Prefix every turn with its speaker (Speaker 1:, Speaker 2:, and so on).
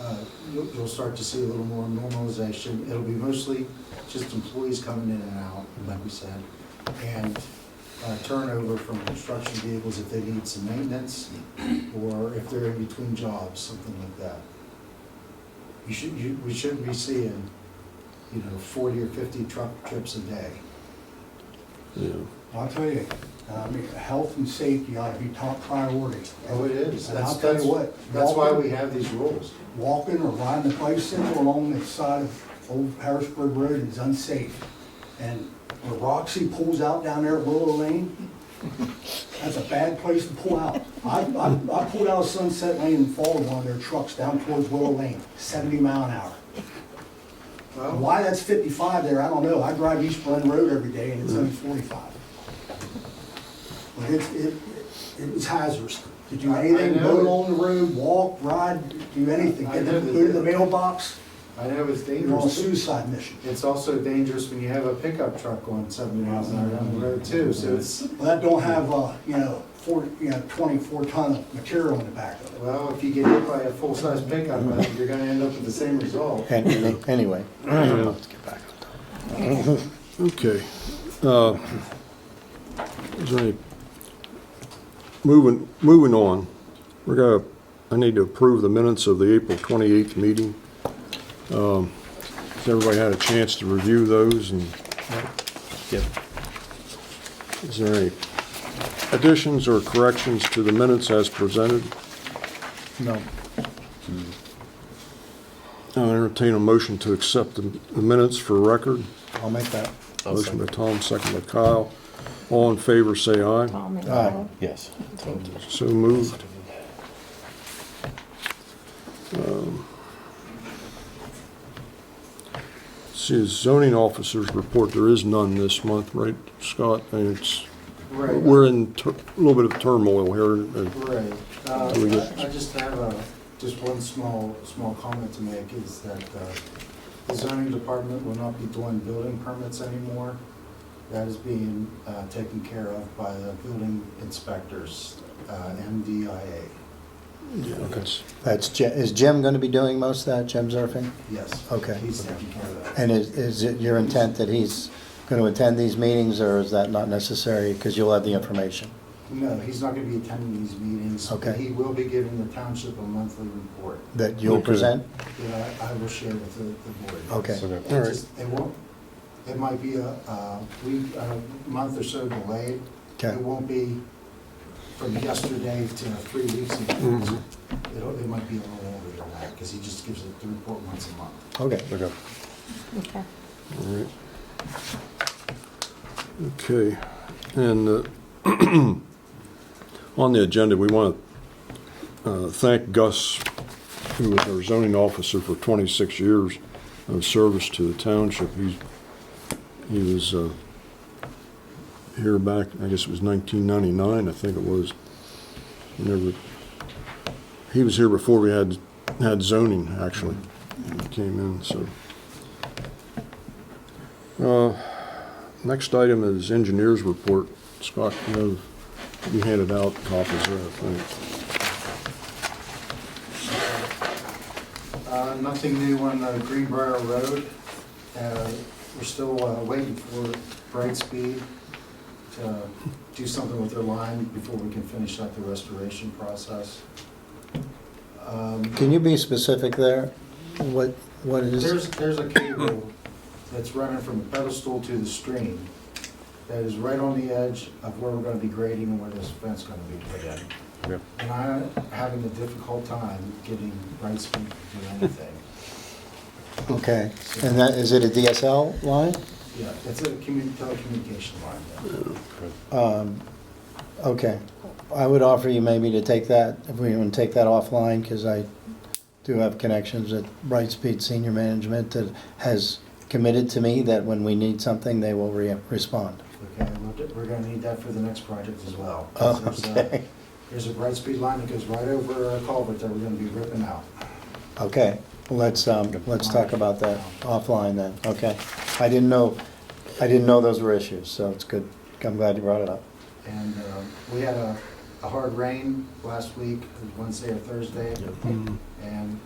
Speaker 1: Uh, you'll, you'll start to see a little more normalization. It'll be mostly just employees coming in and out, like we said, and uh, turnover from construction vehicles if they need some maintenance, or if they're in between jobs, something like that. You should, you, we shouldn't be seeing, you know, forty or fifty truck trips a day.
Speaker 2: Yeah.
Speaker 3: I'll tell you, um, I mean, Uh, health and safety ought to be top priority.
Speaker 1: Oh, it is.
Speaker 3: And
Speaker 1: That's,
Speaker 3: I'll tell
Speaker 1: that's
Speaker 3: you what.
Speaker 1: That's why we
Speaker 3: walking-
Speaker 1: have these rules.
Speaker 3: Walking or riding a bicycle along the side of Old Harrisburg Road is unsafe. And when Roxy pulls out down there at Willow Lane, that's a bad place to pull out. I, I, I pulled out of Sunset Lane and followed one of their trucks down towards Willow Lane, seventy mile an hour.
Speaker 1: Well,
Speaker 3: Why that's fifty-five there, I don't know. I drive East Glen Road every day and it's only
Speaker 1: Mm-hmm.
Speaker 3: forty-five. But it's, it, it's hazardous to do
Speaker 1: I- I
Speaker 3: anything,
Speaker 1: know
Speaker 3: go
Speaker 1: it.
Speaker 3: along the road, walk, ride, do anything.
Speaker 1: I
Speaker 3: Get the,
Speaker 1: know that
Speaker 3: go to the
Speaker 1: it-
Speaker 3: mailbox,
Speaker 1: I know it's
Speaker 3: you're on a
Speaker 1: dangerous. too.
Speaker 3: suicide mission.
Speaker 1: It's also dangerous when you have a pickup truck going seventy miles an hour down the road too, so it's,
Speaker 3: Well, that don't have, uh, you know, four, you know, twenty-four ton of material in the back of it.
Speaker 1: well, if you get hit by a full-size pickup, I think you're gonna end up with the same result.
Speaker 4: An- any- Anyway,
Speaker 2: Yeah.
Speaker 4: let's get back on topic.
Speaker 2: Okay. Uh, Is there any, moving, moving on, we're gonna, I need to approve the minutes of the April 28th meeting. Um, Has everybody had a chance to review those and
Speaker 4: Yep.
Speaker 2: is there any additions or corrections to the minutes as presented?
Speaker 4: No.
Speaker 2: I'll entertain a motion to accept the the minutes for record.
Speaker 4: I'll make that.
Speaker 2: Motion by Tom, second by Kyle. All in favor, say aye.
Speaker 5: Tom and
Speaker 4: Aye.
Speaker 5: Kyle.
Speaker 4: Yes.
Speaker 5: Thank you.
Speaker 2: So moved. Um, See, zoning officers report, there is none this month, right, Scott? And it's,
Speaker 1: Right.
Speaker 2: we're in tur- a little bit of turmoil here. uh,
Speaker 1: Right. Uh,
Speaker 2: Do we get-
Speaker 1: I I just have a, just one small, small comment to make is that uh, the zoning department will not be doing building permits anymore. That is being uh, taken care of by the building inspectors, uh, MDIA.
Speaker 2: Yeah, that's,
Speaker 4: That's, Je- is Jim going to be doing most of that, Jim Zerfing?
Speaker 1: Yes.
Speaker 4: Okay.
Speaker 1: He's taking care of that.
Speaker 4: And is, is it your intent that he's going to attend these meetings, or is that not necessary, because you'll have the information?
Speaker 1: No, he's not going to be attending these meetings.
Speaker 4: Okay.
Speaker 1: He will be giving the township a monthly report
Speaker 4: That you'll
Speaker 2: Okay.
Speaker 4: present?
Speaker 1: that I I will share with the the board.
Speaker 4: Okay.
Speaker 2: all right.
Speaker 1: Just- It won't, it might be a, a week, a month or so delayed.
Speaker 4: Okay.
Speaker 1: It won't be from yesterday to three weeks ago.
Speaker 2: Mhm.
Speaker 4: Mm-hmm.
Speaker 1: It'll, it might be a little older than that, because he just gives it the report once a month.
Speaker 4: Okay.
Speaker 2: Okay.
Speaker 5: Okay.
Speaker 2: All right. Okay, and uh, on the agenda, we want to thank Gus, who was our zoning officer for 26 years of service to the township. He's- He was uh, here back, I guess it was 1999, I think it was. Never, he was here before we had, had zoning, actually, when he came in, so. Uh, Next item is engineer's report. Scott, you know, you handed out copies of that, I think.
Speaker 1: Uh, nothing new on uh, Greenbrier Road. Uh, We're still uh, waiting for Brightspeed to do something with their line before we can finish up the restoration process. Um,
Speaker 4: Can you be specific there? What, what it is?
Speaker 1: There's, there's a cable that's running from the pedestal to the stream that is right on the edge of where we're gonna be grading and where this fence gonna be put in. And I'm having a difficult time getting Brightspeed to do anything.
Speaker 4: Okay. And that, is it a DSL line?
Speaker 1: Yeah, it's a commu- telecommunication line. yeah.
Speaker 4: Um, Okay. I would offer you maybe to take that, if we want to take that offline, because I do have connections at Brightspeed Senior Management that has committed to me that when we need something, they will re- respond.
Speaker 1: Okay, we're- we're gonna need that for the next project as well.
Speaker 4: Oh,
Speaker 1: There's a-
Speaker 4: okay.
Speaker 1: There's a Brightspeed line that goes right over a culvert that we're gonna be ripping out.
Speaker 4: Okay, let's, um, let's talk about that offline then, okay? I didn't know, I didn't know those were issues, so it's good. I'm glad you brought it up.
Speaker 1: And um, we
Speaker 4: Mm-hmm.
Speaker 1: had a, a hard rain last week, Wednesday or Thursday. And